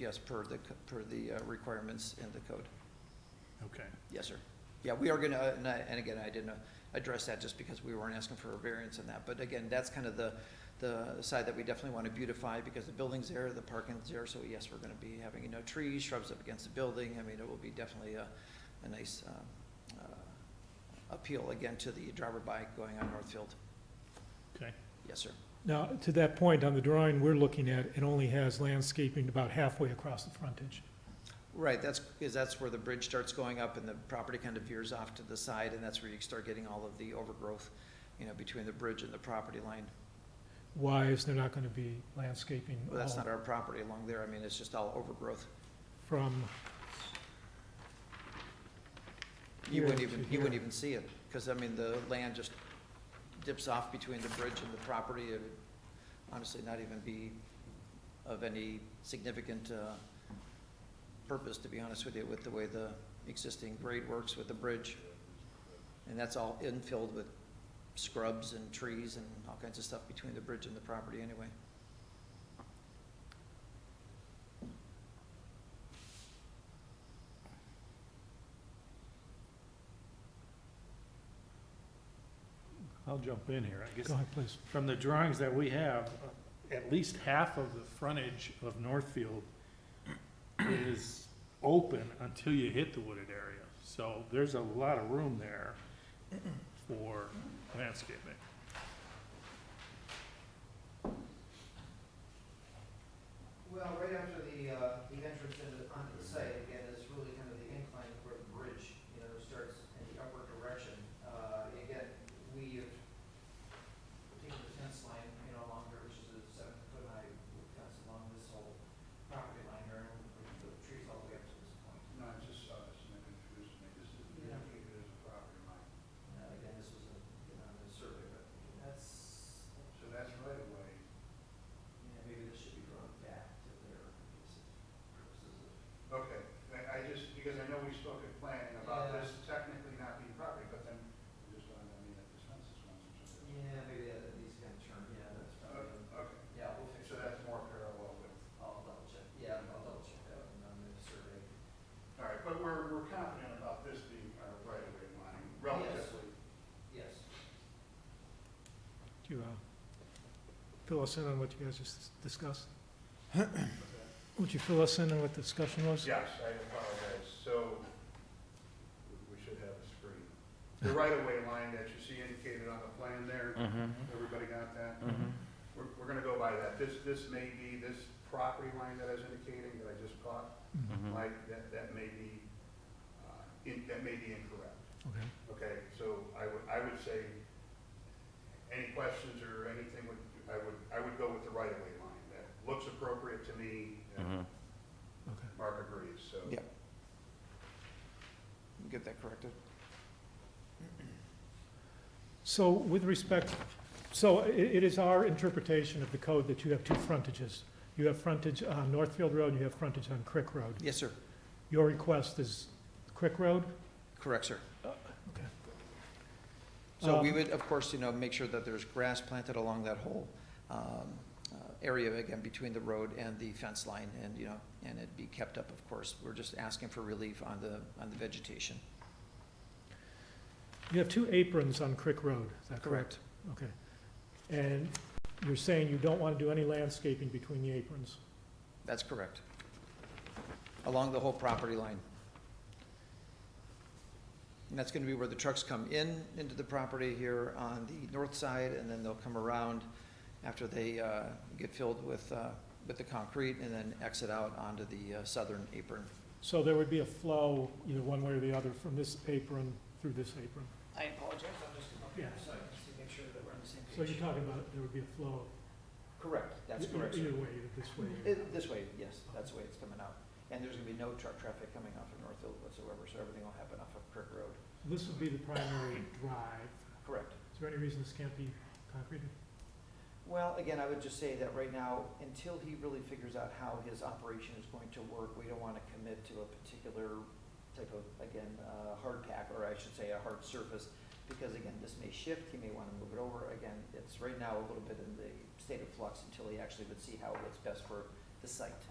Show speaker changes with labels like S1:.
S1: Yes, per the, co- per the uh, requirements in the code.
S2: Okay.
S1: Yes, sir. Yeah, we are gonna, and I, and again, I didn't uh, address that just because we weren't asking for a variance in that. But again, that's kind of the, the side that we definitely want to beautify because the building's there, the parking's there. So yes, we're gonna be having, you know, trees, shrubs up against the building. I mean, it will be definitely a, a nice, um, uh, appeal again to the driver-by going on Northfield.
S2: Okay.
S1: Yes, sir.
S2: Now, to that point, on the drawing we're looking at, it only has landscaping about halfway across the frontage.
S1: Right, that's, because that's where the bridge starts going up and the property kind of veers off to the side, and that's where you start getting all of the overgrowth, you know, between the bridge and the property line.
S2: Why is there not going to be landscaping
S1: Well, that's
S2: all
S1: not our property along there, I mean, it's just all overgrowth.
S2: from,
S1: You wouldn't
S2: Here
S1: even,
S2: to
S1: you wouldn't
S2: here.
S1: even see it, because, I mean, the land just dips off between the bridge and the property. It would honestly not even be of any significant uh, purpose, to be honest with you, with the way the existing grade works with the bridge. And that's all infilled with scrubs and trees and all kinds of stuff between the bridge and the property anyway.
S3: I'll jump in here, I guess.
S2: go ahead, please.
S3: From the drawings that we have, uh, at least half of the frontage of Northfield is open until you hit the wooded area. So there's a lot of room there for landscaping.
S1: Well, right after the, uh, the entrance into, onto the site, again, is really kind of the incline where the bridge, you know, starts in the upward direction. Uh, and again, we have taken the fence line, you know, along here, which is a seven foot high fence along this whole property line here, and the trees all the way up to this point.
S4: No, I just saw this and it confused me, this is,
S1: Yeah.
S4: it is a property line,
S1: Uh, again, this was a, you know, a survey, but that's,
S4: so that's right away.
S1: you know, maybe this should be drawn back to their purposes of
S4: Okay, I, I just, because I know we spoke at planning about
S1: Yeah.
S4: this technically not being property, but then we just wanted, I mean, that this fence is one or something.
S1: Yeah, maybe that, that needs to kind of turn, yeah, that's probably,
S4: Uh, Okay,
S1: yeah, we'll fix
S4: so
S1: that.
S4: that's more parallel with,
S1: I'll double check, yeah, I'll double check that and I'm gonna survey.
S4: all right, but we're, we're confident about this being our right away line relatively.
S1: Yes.
S2: Do you uh, fill us in on what you guys just discussed? Would you fill us in on what the discussion was?
S4: Yes, I apologize, so we- we should have a screen. The right of way line that you see indicated on the plan there, everybody got that? We're, we're gonna go by that. This, this may be, this property line that I was indicating that I just caught,
S2: Mhm,
S4: like, that, that may be, uh, in, that may be incorrect.
S2: Okay.
S4: Okay, so I would, I would say, any questions or anything would, I would, I would go with the right of way line. That looks appropriate to me, and
S2: Okay.
S4: Mark agrees, so.
S1: Yeah. Get that corrected.
S2: So with respect, so i it is our interpretation of the code that you have two frontages. You have frontage on Northfield Road, you have frontage on Crick Road.
S1: Yes, sir.
S2: Your request is Crick Road?
S1: Correct, sir.
S2: Uh, Okay.
S1: So we
S2: Um,
S1: would, of course, you know, make sure that there's grass planted along that whole um, uh, area, again, between the road and the fence line, and, you know, and it be kept up, of course. We're just asking for relief on the, on the vegetation.
S2: You have two aprons on Crick Road, is that correct? Okay. And you're saying you don't want to do any landscaping between the aprons?
S1: That's correct. Along the whole property line. And that's gonna be where the trucks come in, into the property here on the north side, and then they'll come around after they, uh, get filled with, uh, with the concrete, and then exit out onto the uh, southern apron.
S2: So there would be a flow either one way or the other from this apron through this apron?
S1: I apologize, I'm just
S2: here, Yeah.
S1: so I can make sure that we're on the same
S2: So you're talking about there would be a flow?
S1: Correct, that's
S2: either-
S1: correct,
S2: Either
S1: sir.
S2: way, either this way. or-
S1: It- This way, yes, that's the way it's coming out. And there's gonna be no truck traffic coming off of Northfield whatsoever, so everything will happen off of Kirk Road.
S2: This would be the primary drive.
S1: Correct.
S2: Is there any reason this can't be concreted?
S1: Well, again, I would just say that right now, until he really figures out how his operation is going to work, we don't want to commit to a particular type of, again, uh, hard pack, or I should say, a hard surface, because again, this may shift, he may want to move it over, again, it's right now a little bit in the state of flux until he actually would see how it works best for the site.